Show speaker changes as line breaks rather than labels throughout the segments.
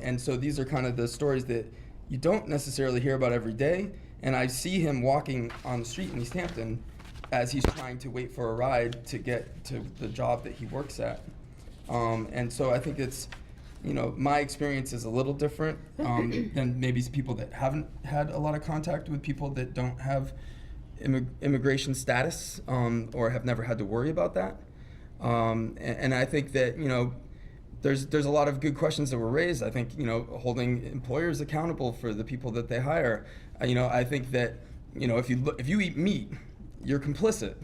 And so these are kind of the stories that you don't necessarily hear about every day. And I see him walking on the street in East Hampton as he's trying to wait for a ride to get to the job that he works at. Um, and so I think it's, you know, my experience is a little different um, than maybe s- people that haven't had a lot of contact with people that don't have immig- immigration status um, or have never had to worry about that. Um, and, and I think that, you know, there's there's a lot of good questions that were raised. I think you know holding employers accountable for the people that they hire. Uh, you know I think that you know if you look, if you eat meat, you're complicit.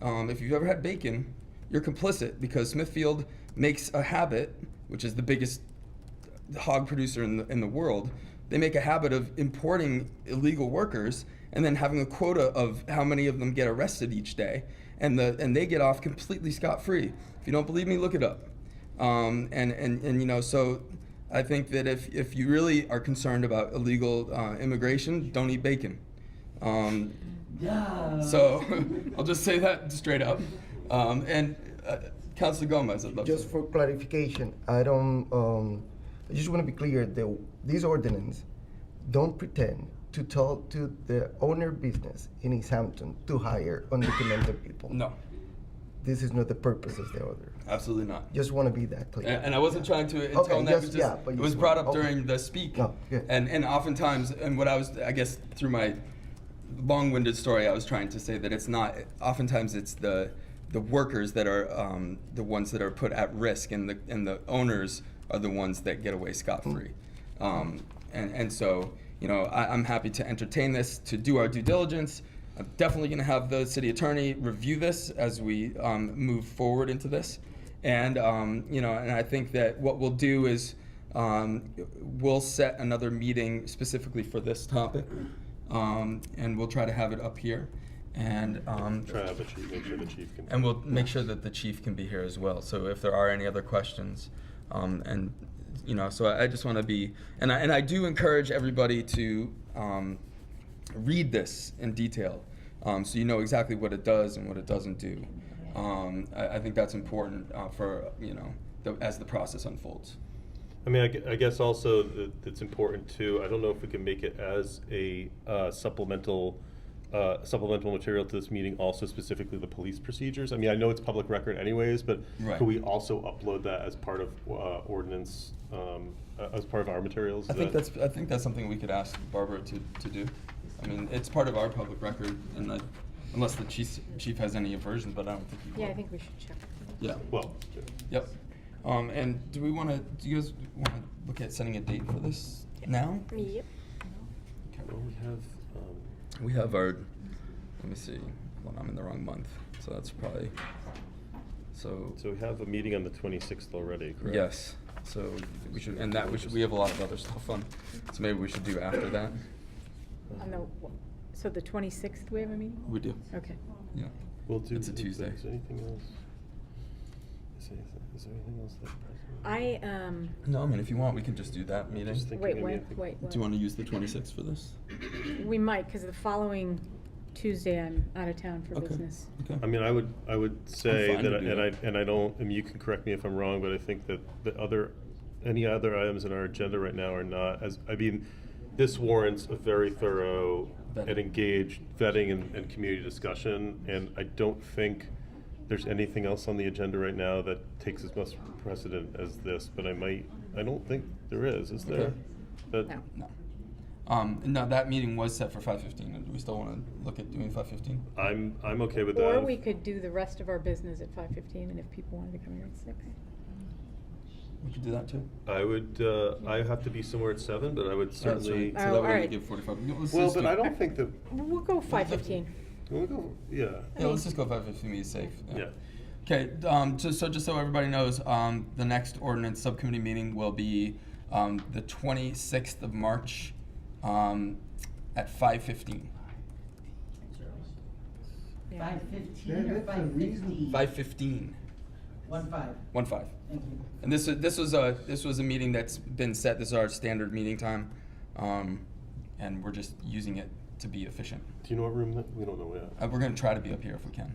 Um, if you've ever had bacon, you're complicit because Smithfield makes a habit, which is the biggest hog producer in the in the world. They make a habit of importing illegal workers and then having a quota of how many of them get arrested each day, and the and they get off completely scot free. If you don't believe me, look it up um, and, and and you know so I think that if if you really are concerned about illegal uh, immigration, don't eat bacon. Um, so I'll just say that straight up. Um, and uh, Councilor Gomez, I'd love
Just
to.
for clarification, I don't, um, I just want to be clear that these ordinance don't pretend to tell to the owner business in East Hampton to hire undocumented people.
no,
This is not the purpose of the order.
absolutely not.
Just want to be that clear.
And, and I wasn't trying to intone
Okay,
that.
yes,
but just,
yeah, but
it
you
was
were.
brought up
Okay.
during the speak.
No, good.
And and oftentimes, and what I was, I guess, through my long-winded story, I was trying to say that it's not. Oftentimes, it's the the workers that are um, the ones that are put at risk, and the and the owners are the ones that get away scot-free. Um, and and so, you know, I, I'm happy to entertain this, to do our due diligence. I'm definitely going to have the city attorney review this as we um, move forward into this. And um, you know, and I think that what we'll do is um, we'll set another meeting specifically for this topic, um, and we'll try to have it up here, and um,
Try to have a chief, make sure the chief can.
and we'll make sure that the chief can be here as well. So if there are any other questions, um, and you know, so I, I just want to be, and I, and I do encourage everybody to um, read this in detail, um, so you know exactly what it does and what it doesn't do. Um, I, I think that's important uh, for you know the, as the process unfolds.
I mean, I gue- I, guess also that it's important too, I don't know if we can make it as a uh, supplemental, uh, supplemental material to this meeting, also specifically the police procedures. I mean, I know it's public record anyways, but
Right.
could we also upload that as part of uh, ordinance, um, uh, as part of our materials?
I
Is
think
that-
that's I think that's something we could ask Barbara to, to do. I mean, it's part of our public record, and I, unless the chief chief has any aversion, but I don't think he will.
Yeah, I think we should check.
Yeah.
Well,
Yep. Um, and do we want to, do you guys want to look at setting a date for this now?
Yep.
Okay.
well, we have, um,
We have our, let me see, hold on, I'm in the wrong month, so that's probably, so,
so we have a meeting on the twenty-sixth already, correct?
yes. So we should, and that, we should, we have a lot of other stuff on, so maybe we should do after that.
On the, w- so the twenty-sixth, we have a meeting?
We do.
Okay.
Yeah.
We'll do.
It's a
is-
Tuesday.
Is there anything else? Is there, is there anything else that's present?
I, um,
No, I mean, if you want, we can just do that meeting.
Just think-
Do
Thinking
wait,
maybe I
wait,
think-
wait,
you want
wait.
to use the twenty-sixth for this?
We might, because the following Tuesday, I'm out of town for
Okay.
business.
Okay.
I mean, I would, I would say
fine
that,
to
I-
do
and I,
that.
and I don't, I mean, you can correct me if I'm wrong, but I think that the other, any other items in our agenda right now are not as, I mean, this warrants a very thorough
Vetting.
and engaged vetting and, and community discussion, and I don't think there's anything else on the agenda right now that takes as much precedent as this, but I might, I don't think there is, is there?
Okay.
That,
No.
No. Um, no, that meeting was set for five fifteen, do we still want to look at doing five fifteen?
I'm, I'm okay with that.
Or we could do the rest of our business at five fifteen, and if people wanted to come here at six.
We could do that too.
I would, uh, I have to be somewhere at seven, but I would
Alright, so-
certainly.
So that
Oh,
way we
alright.
give forty-five. No, let's
Well,
just
but
do-
I don't think that,
We'll go five fifteen.
can we go, yeah,
Yeah, let's just go five fifty, be safe.
yeah.
Okay, um, just, so just so everybody knows, um, the next ordinance subcommittee meeting will be, um, the twenty-sixth of March, um, at five fifteen.
Five
That-
fifteen or
that's a
five fifty?
Five fifteen,
One five,
one five.
thank you.
And this, was- this was a, this was a meeting that's been set, this is our standard meeting time, um, and we're just using it to be efficient.
Do you know what room that, we don't know yet.
Uh, we're gonna try to be up here if we can.